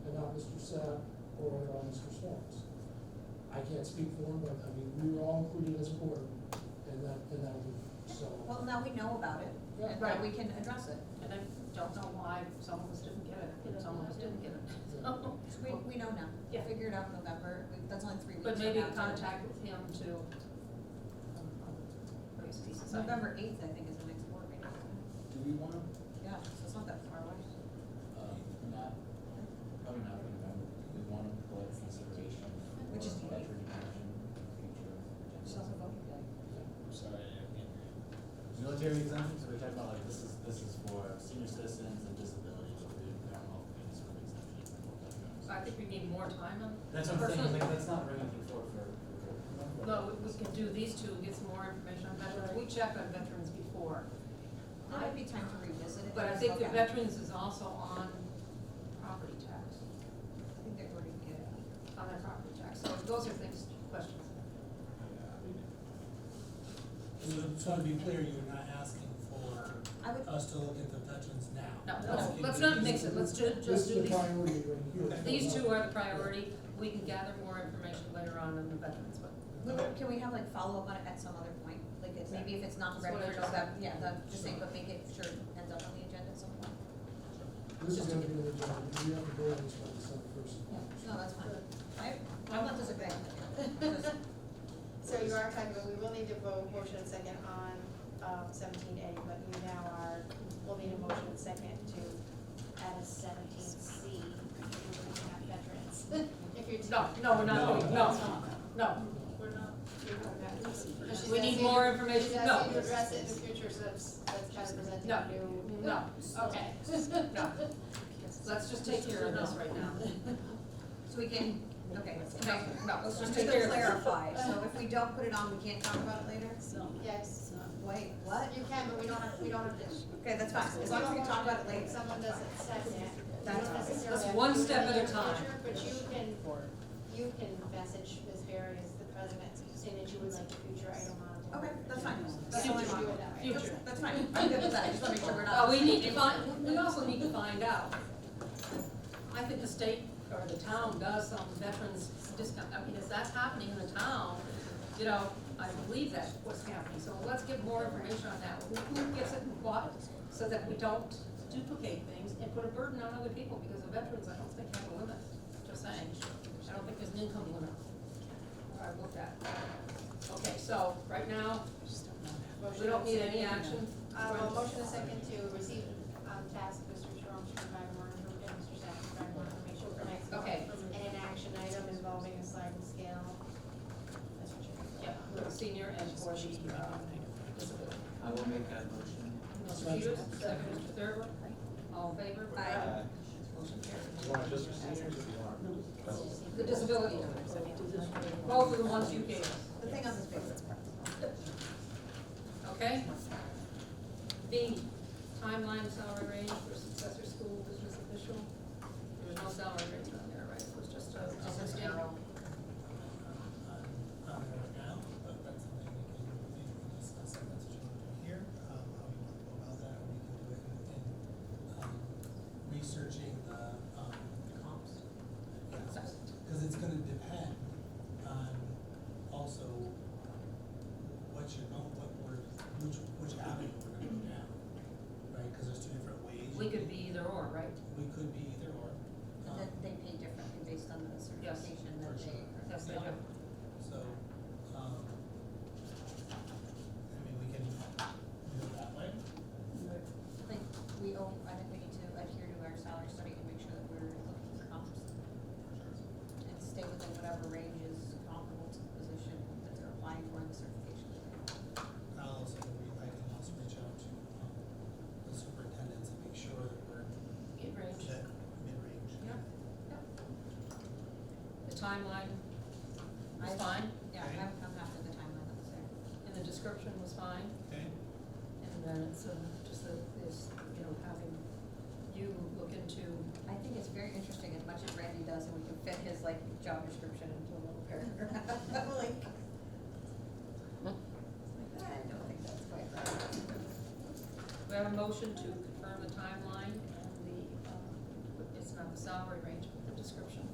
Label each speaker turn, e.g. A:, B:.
A: percent or on Mr. Swan's. I can't speak for him, but I mean, we were all included as a board in that, in that group, so.
B: Well, now we know about it, and now
C: Right.
B: we can address it, and I don't know why some of us didn't get it, and some of us didn't get it. So, We, we know now, we
C: Yeah.
B: figured out in November, We- that's only three weeks.
C: But
B: from
C: maybe
B: now, so-
C: contact with him to.
B: um,
C: Raise the society.
B: November eighth, I think, is the next board meeting,
D: Do we want, um,
B: yeah, so it's not that far away.
D: not, probably not in November, do we want to collect consideration for
B: Which is the
D: veteran action in future agendas?
E: I'm sorry, I can't hear you.
D: Military exemptions, we're talking about like, this is, this is for senior citizens and disabilities, but we don't know if any sort of exemption for veterans.
C: So I think we need more time on.
D: That's what I'm saying,
C: personally-
D: like, let's not bring anything forward for, for.
C: No, we- we can do these two, get some more information on veterans, we checked on veterans before.
B: That might be time to revisit it.
C: But I think the
B: Okay.
C: veterans is also on property tax,
B: I think they're going to get it.
C: on their property tax, so those are things, questions.
F: So, so to be clear, you're not asking for
B: I would,
F: us to look at the veterans now?
C: No, let's, let's not mix it, let's ju-
A: This
C: just do
A: is the
C: these,
A: priority right here.
C: these two are the priority, we can gather more information later on in the veterans, but.
B: we- can we have like follow-up on it at some other point, like it's, maybe if it's not
C: That's
B: ready
C: what I
B: for
C: just said.
B: November, yeah, that, just saying, but make it sure it ends up on the agenda at some point.
A: This is gonna be the agenda, we have to go over this by December first.
B: No, that's fine, I, I'm not disagreeing with you. Just-
G: So you are talking about, we will need to vote motion and second on um, seventeen A, but you now are, we'll need a motion and second to add a seventeen C, not veterans. If you're.
C: No, no, we're not, doing- no, no,
G: We're not. But she's
C: we need
G: asking-
C: more information,
G: She's
C: no,
G: asking you to address it in the future, so that's, that's kind of presenting
C: No.
G: a new.
C: no, okay, no. Let's just take care of this right now.
B: So we can, okay,
C: No,
B: okay.
C: no, let's
B: Just
C: just
B: to
C: take care of this.
B: clarify, so if we don't put it on, we can't talk about it later?
G: Yes,
B: Wait, what?
G: you can, but we don't have, we don't have to.
B: Okay, that's fine, as long as we can talk about it
G: If
B: later.
G: Someone doesn't second it. you
B: That's
G: don't
B: fine.
G: necessarily
C: That's
G: have
C: one
G: to do
C: step
G: it
C: at a
G: in the
C: time.
G: future, But you can, you can message Ms. Barry as the president, saying that you would like a future item on.
B: Okay, that's fine.
G: That's
C: Future.
G: how you do it that way.
C: Future.
B: That's- That's fine, I'm good with that, I just wanna make sure we're not.
C: Uh, we need to find, we also need to find out. I think the state or the town does some veterans discount, I mean, if that's happening in the town, you know, I believe that's what's happening, so let's get more information on that. Who- Who gets it and what, so that we don't duplicate things and put a burden on other people, because the veterans, I don't think have a limit, just saying. I don't think there's an income limit. I looked at. Okay, so, right now, we don't need any action.
G: Uh, well, motion a second to receive, um, task Mr. Sherm to provide more, and Mr. Sapp to provide more information for next month.
C: Okay.
G: And an action item involving a sliding scale. That's what you're.
C: Yeah, for the senior and for the, um, disability.
D: I will make that motion.
C: Mr. Peters, second, Mr. Thurber, all in favor?
B: Aye.
C: Motion carries.
E: You want just for seniors or do you want?
C: The disability numbers, both of the ones you gave us,
B: The thing on this basis.
C: okay? B, timeline salary range for successor school business official. There's no salary range on there, right? It was just a, just a general.
F: Not right uh, now, but that's something we can, maybe we can discuss, if that's what you want to do here, um, how we want to go about that, or we can do it in, in, um, researching the, um, the comps. Because it's gonna depend on also what you're going, what we're, which, which avenue we're gonna go down, right? Because there's two different ways.
C: We could be either or, right?
F: We could be either or.
B: But
F: um,
B: then they pay differently based on the certification that
F: For sure.
B: they.
C: That's the,
F: So, um, I mean, we can do it that way.
B: I think we owe, I think we need to adhere to our salary study and make sure that we're looking for comps. And stay within whatever range is comparable to the position that they're applying for in the certification.
F: I'll also, re- I can also reach out to, um, the superintendents and make sure that we're
C: get range.
F: that mid-range.
C: Yeah, yeah. The timeline was fine,
B: Yeah,
F: Okay.
B: I'm, I'm happy with the timeline that was there.
C: and the description was fine.
F: Okay,
C: And then it's uh, just the, is, you know, having you look into,
B: I think it's very interesting as much as Randy does, and we can fit his like job description into a little paragraph, like. I don't think that's quite right.
C: we have a motion to uh,